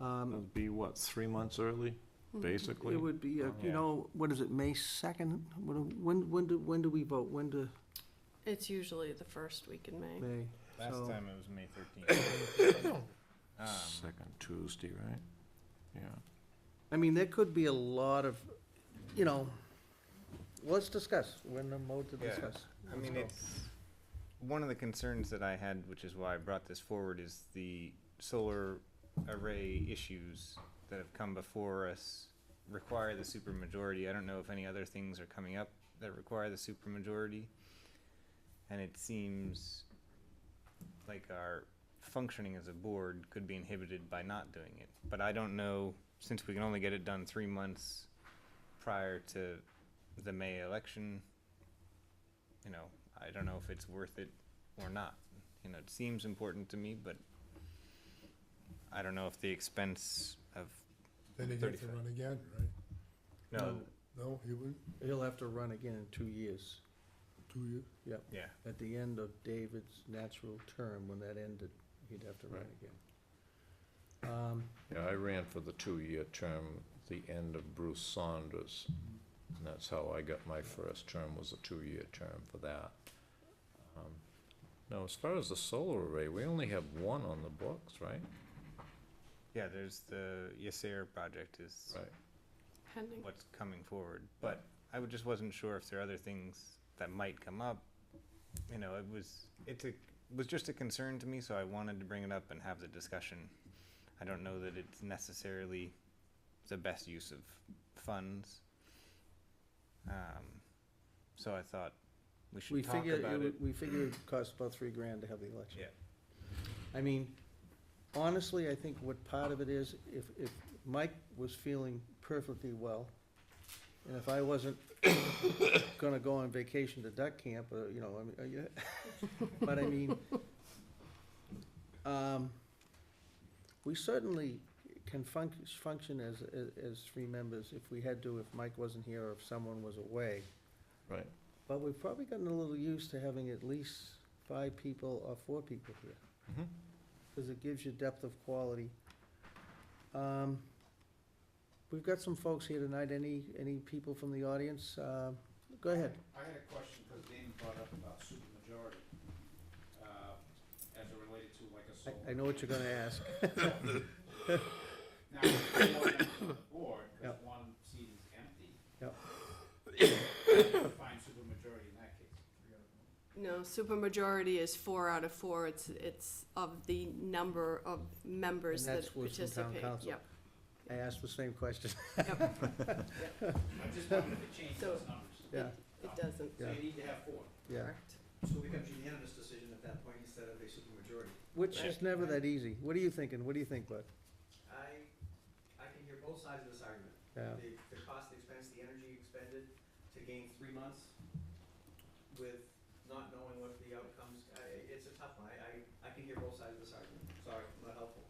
Um, It'd be what, three months early, basically? It would be, uh, Yeah. you know, what is it, May 2nd? What do- When, when do, when do we vote? When do, It's usually the first week in May. May? So- Last time it was May thirteenth. Ah, Ah. Second Tuesday, right? Yeah. I mean, there could be a lot of, you know, let's discuss. We're in the mode to Yeah. discuss. I mean, Let's it's, one of the concerns that I had, which is why I brought this forward, is the solar array issues that have come before us require the supermajority. I don't know if any other things are coming up that require the supermajority. And it seems like our functioning as a board could be inhibited by not doing it. But I don't know, since we can only get it done three months prior to the May election, you know, I don't know if it's worth it or not. You know, it seems important to me, but I don't know if the expense of, Then he'd have to 35. run again, right? no, No, he wouldn't, go. He'll have to run again in two years, two years. yeah, at the end of David's natural term, when that ended, he'd have to run Right. again. Um, Yeah, I ran for the two-year term, the end of Bruce Saunders. And that's how I got my first term, was a two-year term for that. Um, Now, as far as the solar array, we only have one on the books, right? yeah, there's the Ysair project is Right. Pending. what's coming forward. But I would- just wasn't sure if there are other things that might come up. You know, it was, it's a, was just a concern to me, so I wanted to bring it up and have the discussion. I don't know that it's necessarily the best use of funds. Um, so I thought we We should talk figure, about it it. would- we figure it costs about three grand to have the election. Yeah, I mean, honestly, I think what part of it is, if, if Mike was feeling perfectly well, and if I wasn't gonna go on vacation to duck camp, or, you know, I mean, uh, yeah, but I mean, um, we certainly can func- function as, as, as three members if we had to, if Mike wasn't here or if someone was away. Right. But we've probably gotten a little used to having at least five people or four people here Mhm. because it gives you depth of quality. Um, We've got some folks here tonight, any, any people from the audience? Uh, Go ahead. I had a question because Dan brought up about supermajority, uh, as it related to like a I- I solar. know what you're gonna ask. Now, there's four members on the board, because Yep. one seat is empty. Yep. Find supermajority in that case. No, supermajority is four out of four. It's, it's of the number of members And that that's what's from town participate. council. Yep. I asked the same question. I just wanted to change So- those numbers. Yeah, It doesn't, So Yeah. you need to have four. yeah. correct? So it becomes unanimous decision at that point instead of a supermajority. Which is never that easy. What are you thinking? What do you think, Bud? I, I can hear both sides of this argument. Yeah, The, the cost, the expense, the energy expended to gain three months with not knowing what the outcomes, I, it's a tough one. I, I, I can hear both sides of this argument. Sorry, not helpful.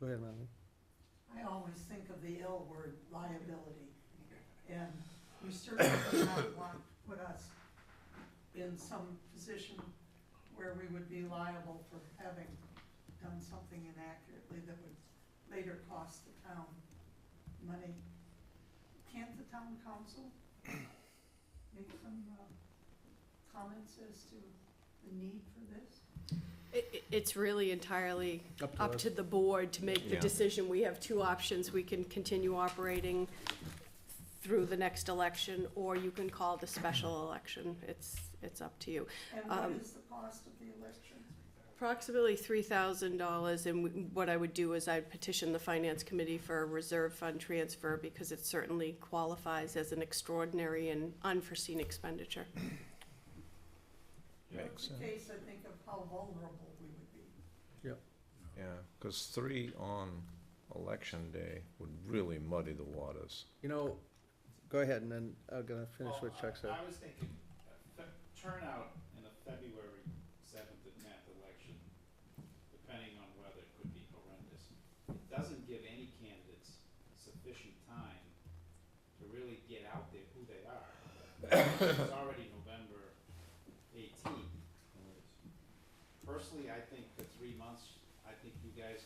go ahead, Melanie. I always think of the L word, liability. And we certainly do not want to put us in some position where we would be liable for having done something inaccurately that would later cost the town money. Can't the town council make some uh, comments as to the need for this? It, it- it's really entirely Up to up us. to the board to make the Yeah. decision. We have two options. We can continue operating through the next election, or you can call the special election. It's, it's up to you. And what Um, is the cost of the election? Approximately three thousand dollars, and w- what I would do is I'd petition the finance committee for a reserve fund transfer because it certainly qualifies as an extraordinary and unforeseen expenditure. Makes In sense. case I think of how vulnerable we would be. Yeah, because three on election day would really muddy the waters. You know, go ahead, and then I'm gonna finish Well, what Chuck I- said. I was thinking, uh, fe- turnout in the February seventh and tenth election, depending on weather, could be horrendous. It doesn't give any candidates sufficient time to really get out there who they are. It's already November eighteenth. Personally, I think for three months, I think you guys